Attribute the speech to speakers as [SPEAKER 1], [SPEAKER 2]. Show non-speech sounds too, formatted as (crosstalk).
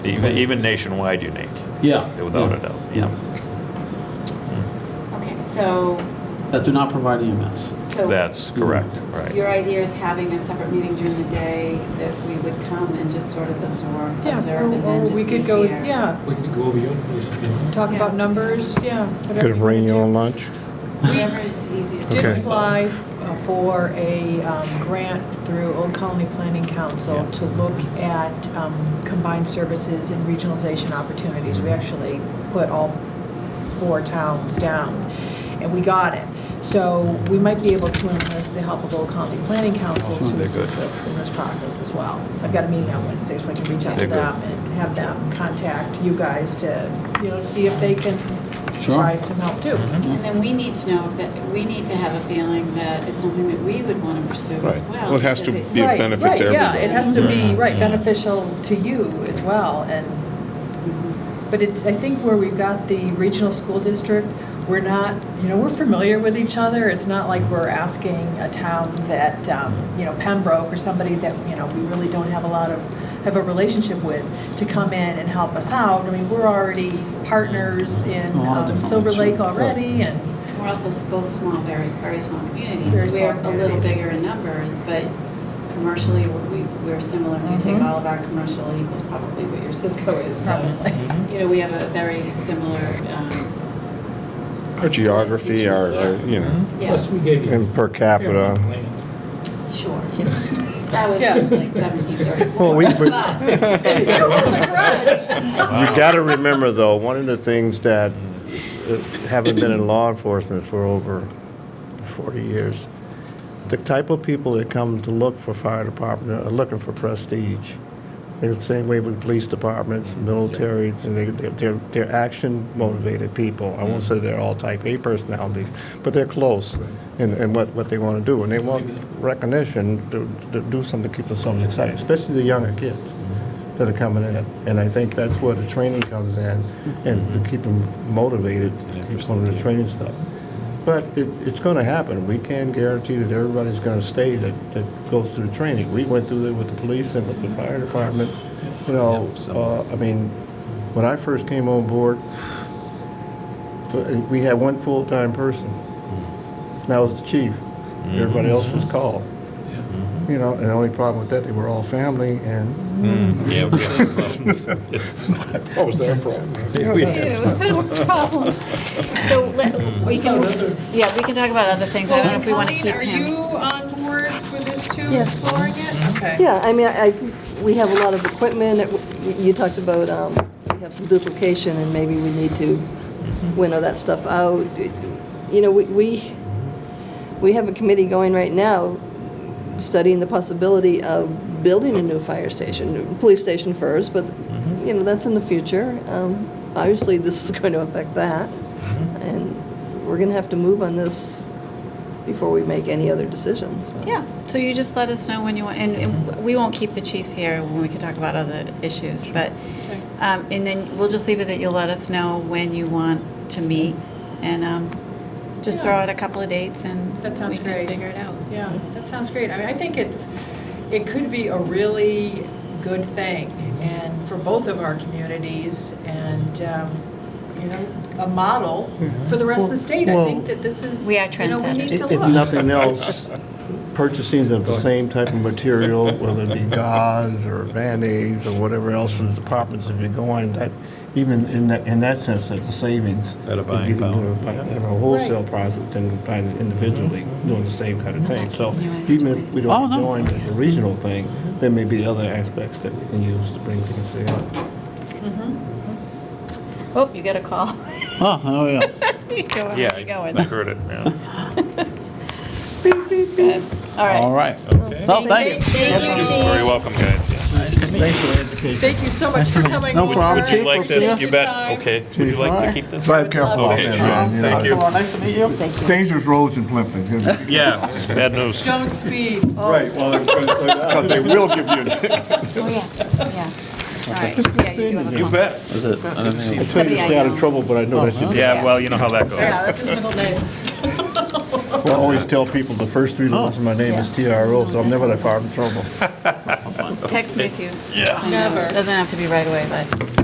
[SPEAKER 1] Even, even nationwide unique,
[SPEAKER 2] Yeah.
[SPEAKER 1] without
[SPEAKER 2] yeah,
[SPEAKER 1] a doubt, yeah.
[SPEAKER 3] Okay, so,
[SPEAKER 2] That do not provide E EMS.
[SPEAKER 3] so.
[SPEAKER 1] That's correct, right.
[SPEAKER 3] Your idea is having a separate meeting during the day that we would come and just sort of absorb,
[SPEAKER 4] Yeah,
[SPEAKER 3] observe,
[SPEAKER 4] or-
[SPEAKER 3] and then
[SPEAKER 4] or
[SPEAKER 3] just be
[SPEAKER 4] we
[SPEAKER 3] here.
[SPEAKER 4] could go, yeah,
[SPEAKER 5] We could go over your place. if you want.
[SPEAKER 4] talk
[SPEAKER 3] Yeah.
[SPEAKER 4] about numbers, yeah. whatever
[SPEAKER 6] Could
[SPEAKER 4] you
[SPEAKER 6] bring
[SPEAKER 4] wanna
[SPEAKER 6] your
[SPEAKER 4] do.
[SPEAKER 6] own lunch?
[SPEAKER 3] Whatever is easiest.
[SPEAKER 4] Did
[SPEAKER 6] Okay.
[SPEAKER 4] apply uh, for a um, grant through Old Colony Planning Council to look at um, combined services and regionalization opportunities.
[SPEAKER 1] Mm-hmm.
[SPEAKER 4] We actually put all four towns down, and we got it. So we might be able to enlist the help of Old Colony Planning Council to
[SPEAKER 1] Oh, They're
[SPEAKER 4] assist
[SPEAKER 1] good.
[SPEAKER 4] us in this process as well. I've got a meeting on Wednesday, so I can reach out
[SPEAKER 1] They're
[SPEAKER 4] to
[SPEAKER 1] good.
[SPEAKER 4] them and have them contact you guys to, you know, see if they can
[SPEAKER 2] Sure.
[SPEAKER 4] provide some help too.
[SPEAKER 1] Mm-hmm.
[SPEAKER 3] And then we need to know if that, we need to have a feeling that it's something that we would want to pursue as
[SPEAKER 6] Right.
[SPEAKER 3] well.
[SPEAKER 6] Well, it has to
[SPEAKER 3] because it-
[SPEAKER 6] be a
[SPEAKER 4] Right,
[SPEAKER 6] benefit to
[SPEAKER 4] Right, yeah,
[SPEAKER 6] everybody.
[SPEAKER 4] it has to be,
[SPEAKER 1] Right.
[SPEAKER 4] right, beneficial to you as well, and,
[SPEAKER 3] Mm-hmm.
[SPEAKER 4] but it's, I think where we've got the regional school district, we're not, you know, we're familiar with each other, it's not like we're asking a town that, um, you know, Pembroke or somebody that, you know, we really don't have a lot of, have a relationship with, to come in and help us out, I mean, we're already partners in
[SPEAKER 2] A lot of
[SPEAKER 4] um,
[SPEAKER 2] different
[SPEAKER 4] Silver
[SPEAKER 2] ones,
[SPEAKER 4] Lake
[SPEAKER 2] right.
[SPEAKER 4] already, and,
[SPEAKER 3] We're also s- both small, very, very small communities.
[SPEAKER 4] Very
[SPEAKER 3] We are
[SPEAKER 4] small
[SPEAKER 3] a little
[SPEAKER 4] communities.
[SPEAKER 3] bigger in numbers, but commercially, we, we're similar. If you take all of our commercial equals probably what your Mm-hmm. Cisco is. So,
[SPEAKER 4] probably.
[SPEAKER 3] You know, we have a very similar, um,
[SPEAKER 6] Our geography, our, our, you know,
[SPEAKER 3] yeah,
[SPEAKER 5] Plus, we gave you.
[SPEAKER 6] and per capita.
[SPEAKER 3] sure. That was
[SPEAKER 4] Yeah.
[SPEAKER 3] like seventeen thirty-four.
[SPEAKER 6] Well, we- we-
[SPEAKER 3] (laughs)
[SPEAKER 1] Wow.
[SPEAKER 4] (laughs)
[SPEAKER 6] You got to remember, though, one of the things that uh, having been in law enforcement for over 40 years, the type of people that come to look for fire department are looking for prestige. They're the same way with police departments, military, and they, they're- they're, they're action motivated people. I won't say they're all type A personalities, but they're close in, in what, what they want to do. And they want recognition to, to do something to keep themselves excited, especially the younger kids that are coming in. And I think that's where the training comes in, and to keep them motivated, from the training stuff. But it, it's gonna happen. We can't guarantee that everybody's gonna stay that, that goes through the training. We went through it with the police and with the fire department, you know, uh, I mean, when I first came on board, uh, we had one full-time person. And That was the chief. Everybody else was called. You know, and the only problem with that, they were all family and
[SPEAKER 1] Mm. Yeah, (laughs) we have problems.
[SPEAKER 6] what was that (laughs) problem?
[SPEAKER 4] Ew, is that a problem?
[SPEAKER 3] So let, we can, yeah, we can talk about other things. I don't know if we want to keep
[SPEAKER 4] Colleen, are you
[SPEAKER 3] him.
[SPEAKER 4] on board with this too,
[SPEAKER 7] Yes.
[SPEAKER 4] exploring it? Okay.
[SPEAKER 7] Yeah, I mean, I, we have a lot of equipment, It- you talked about, um, we have some duplication, and maybe we need to winnow that stuff out. You know, we- we, we have a committee going right now studying the possibility of building a new fire station, police station first, but, you know, that's in the future. Um, Obviously, this is (laughs) going to affect that, and we're going to have to move on this before we make any other decisions, so.
[SPEAKER 3] Yeah, so you just let us know when you want, and- and we won't keep the chiefs here when we can talk about other issues, but, um, and then we'll just leave it that you'll let us know when you want to meet, and um, just throw out a couple of dates and
[SPEAKER 4] That sounds
[SPEAKER 3] We can
[SPEAKER 4] great.
[SPEAKER 3] figure it out.
[SPEAKER 4] Yeah, that sounds great. I mean, I think it's, it could be a really good thing and for both of our communities and, um, you know, a model for the rest of the state. I
[SPEAKER 6] Well-
[SPEAKER 4] think that this is,
[SPEAKER 3] We
[SPEAKER 4] you
[SPEAKER 3] are
[SPEAKER 4] know, we need to
[SPEAKER 6] If
[SPEAKER 4] look.
[SPEAKER 6] if nothing else, purchasing of the same type of material, whether it be gauze or Band-Aids or whatever else from the departments, if you're going, that, even in that, in that sense, that's a savings.
[SPEAKER 1] Better
[SPEAKER 6] If
[SPEAKER 1] buying
[SPEAKER 6] you can do
[SPEAKER 1] power.
[SPEAKER 6] it by- Have a wholesale process than buying it individually, doing the same kind of thing. So even if we
[SPEAKER 2] Oh,
[SPEAKER 6] don't
[SPEAKER 2] no.
[SPEAKER 6] join as a regional thing, there may be other aspects that we can use to bring things together.
[SPEAKER 3] Oh, you got a call. (laughs)
[SPEAKER 2] Oh, oh, yeah.
[SPEAKER 3] You go where
[SPEAKER 1] Yeah,
[SPEAKER 3] you
[SPEAKER 1] I
[SPEAKER 3] going.
[SPEAKER 1] heard it, yeah.
[SPEAKER 3] Good. All
[SPEAKER 2] All
[SPEAKER 3] right.
[SPEAKER 2] right.
[SPEAKER 1] Okay.
[SPEAKER 2] No, thank you.
[SPEAKER 3] Thank you,
[SPEAKER 1] You're
[SPEAKER 3] chief.
[SPEAKER 1] very welcome, guys. yeah.
[SPEAKER 6] Thanks for the education.
[SPEAKER 4] Thank you so much for coming.
[SPEAKER 2] No
[SPEAKER 4] over.
[SPEAKER 2] problem,
[SPEAKER 1] Would you like
[SPEAKER 4] Appreciate
[SPEAKER 1] this? You
[SPEAKER 4] your
[SPEAKER 1] bet,
[SPEAKER 4] time.
[SPEAKER 1] okay. Would you like to keep this?
[SPEAKER 6] Drive careful out
[SPEAKER 1] Okay,
[SPEAKER 6] there,
[SPEAKER 1] sure.
[SPEAKER 6] man. You know,
[SPEAKER 1] Thank you.
[SPEAKER 6] it's
[SPEAKER 2] Nice to meet you.
[SPEAKER 6] Dangerous roads in Plimpton.
[SPEAKER 1] Yeah, bad news.
[SPEAKER 4] Don't speed.
[SPEAKER 6] Right, well, I (laughs) was going to say that. Because they will give you a (laughs) ticket.
[SPEAKER 3] Oh, yeah, yeah. All right, yeah, you do have a
[SPEAKER 1] You
[SPEAKER 3] call.
[SPEAKER 1] bet.
[SPEAKER 6] I tell you to stay out of trouble, but I know that you do.
[SPEAKER 1] Oh, Yeah, well, you know how that
[SPEAKER 4] Yeah,
[SPEAKER 1] goes.
[SPEAKER 4] that's his middle name.
[SPEAKER 6] I always tell people the first three letters of my name is TRO, so I'm never that far in trouble.
[SPEAKER 3] text me if you.
[SPEAKER 1] Yeah.
[SPEAKER 3] I know, it
[SPEAKER 4] Never.
[SPEAKER 3] Doesn't have to be right away, but.